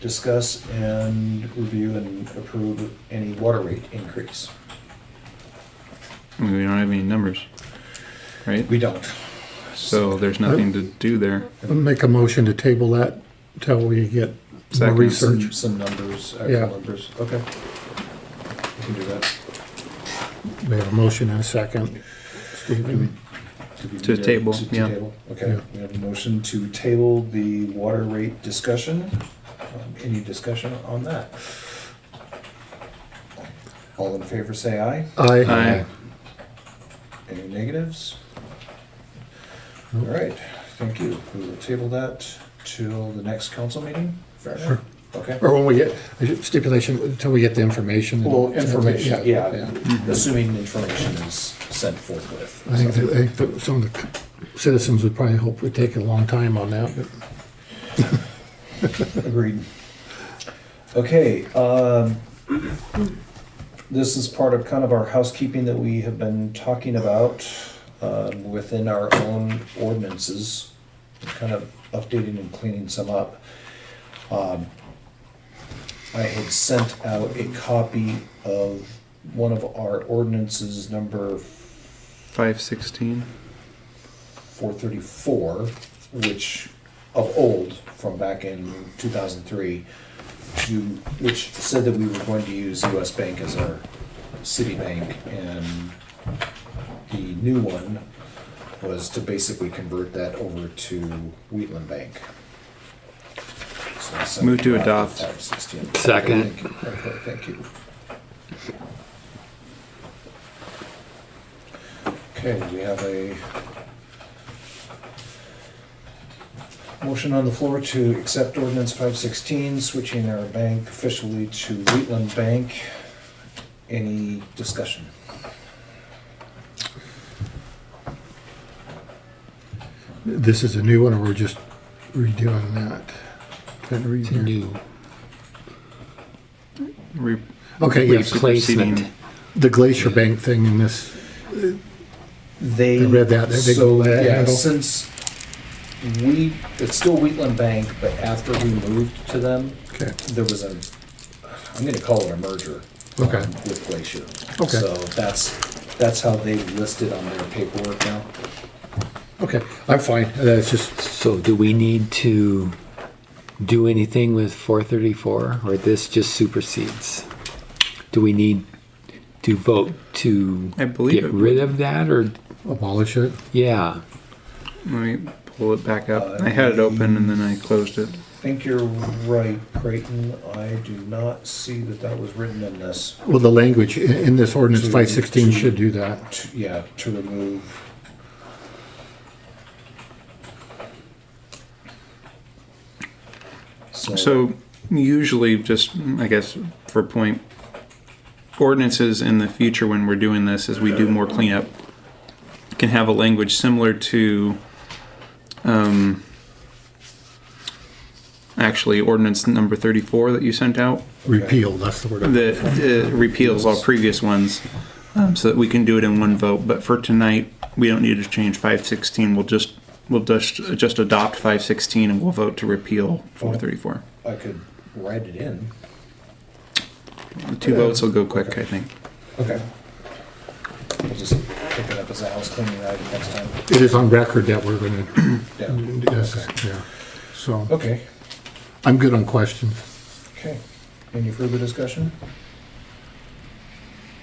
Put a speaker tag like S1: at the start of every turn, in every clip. S1: discuss and review and approve any water rate increase.
S2: I mean, we don't have any numbers, right?
S1: We don't.
S2: So there's nothing to do there.
S3: Make a motion to table that until we get more
S2: Second.
S3: research.
S1: Some- Some numbers,
S3: Yeah.
S1: actual numbers, okay. We can do that.
S3: We have a motion and a second. Steve, do we-
S1: Do we
S2: To
S1: need
S2: table,
S1: to- to
S2: yeah.
S1: table? Okay,
S3: Yeah.
S1: we have a motion to table the water rate discussion. Um, Any discussion on that? All in favor, say aye.
S3: Aye.
S2: Aye.
S1: Any negatives? All
S3: Nope.
S1: right, thank you. We will table that till the next council meeting? Fair enough. Okay.
S3: Or when we get, stipulation, until we get the information.
S1: Well, information, yeah, assuming information is sent forthwith.
S3: I think, that- I think that some of the citizens would probably hope we take a long time on that, but
S1: Agreed. Okay, um, this is part of kind of our housekeeping that we have been talking about, um, within our own ordinances, kind of updating and cleaning some up. Um, I had sent out a copy of one of our ordinances, number
S2: Five sixteen.
S1: 434, which of old from back in 2003, to, which said that we were going to use US Bank as our city bank, and the new one was to basically convert that over to Wheatland Bank. So I sent
S2: Move to
S1: that
S2: adopt.
S1: 516.
S4: Second.
S1: Thank you. Okay, Thank you. Okay, we have a Motion on the floor to accept ordinance five sixteen, switching our bank officially to Wheatland Bank. Any discussion?
S3: this is a new one, or we're just redoing that. That
S4: It's
S3: reason.
S4: new.
S2: Re-
S3: Okay,
S2: we're
S3: yes,
S4: Replacement.
S2: superseding-
S3: the Glacier Bank thing in this,
S1: They.
S3: I read that, they- they
S1: so,
S3: go that
S1: yeah,
S3: handle.
S1: Since we, it's still Wheatland Bank, but after we moved to them,
S3: okay,
S1: there was a, I'm gonna call it a merger.
S3: Okay.
S1: um, With Glacier.
S3: Okay.
S1: So that's, that's how they listed on their paperwork now.
S3: okay, I'm fine, that's just,
S4: So do we need to do anything with four thirty-four, or this just supersedes? Do we need to vote to
S2: I believe
S4: get
S2: it
S4: rid of that, or,
S3: abolish it.
S4: yeah,
S2: Let me pull it back up. I had it open and then I closed it.
S1: think you're right, Creighton. I do not see that that was written in this.
S3: Well, the language in, in this ordinance,
S1: To-
S3: five sixteen
S1: to-
S3: should do that.
S1: To- Yeah, to remove.
S2: So usually just, I guess, for point, ordinances in the future when we're doing this, as we do more cleanup, can have a language similar to, um, actually ordinance number thirty-four that you sent out,
S3: Repeal, that's the word. I'm-
S2: that uh, repeals all previous ones, um, so that we can do it in one vote. But for tonight, we don't need to change five sixteen, we'll just, we'll just, just adopt five sixteen and we'll vote to repeal four thirty-four.
S1: I could write it in.
S2: The two votes will go quick, I think.
S1: Okay. We'll just pick it up as a house cleaning item next time.
S3: It is on record that we're gonna,
S1: Yeah.
S3: yes, yeah, so,
S1: Okay,
S3: I'm good on questions.
S1: okay. Any further discussion?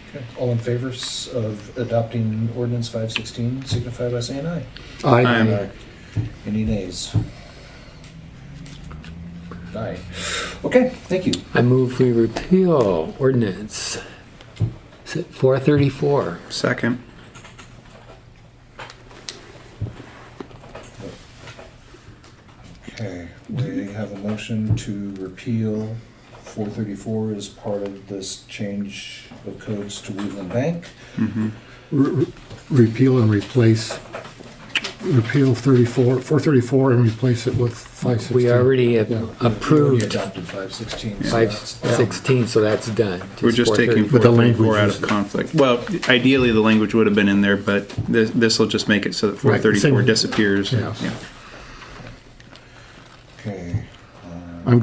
S1: Okay, all in favor s- of adopting ordinance five sixteen, signify by saying aye.
S2: I'm-
S3: I,
S2: Aye.
S1: Any nays? Aye. Okay, thank you.
S4: I move we repeal ordinance. Is it four thirty-four?
S2: Second.
S1: Okay, we have a motion to repeal four thirty-four as part of this change of codes to Wheatland Bank.
S3: re- re- repeal and replace, repeal thirty-four, four thirty-four and replace it with five sixteen.
S4: We already have
S3: Yeah.
S1: We
S4: approved
S1: adopted five sixteen.
S4: five sixteen, so that's done.
S2: We're just taking
S4: 434.
S3: But the
S2: 434 out
S3: language
S2: of
S3: is-
S2: conflict. Well, ideally, the language would have been in there, but this will just make it so that
S3: Right, same-
S2: 434 disappears.
S3: Yeah.
S2: Yeah.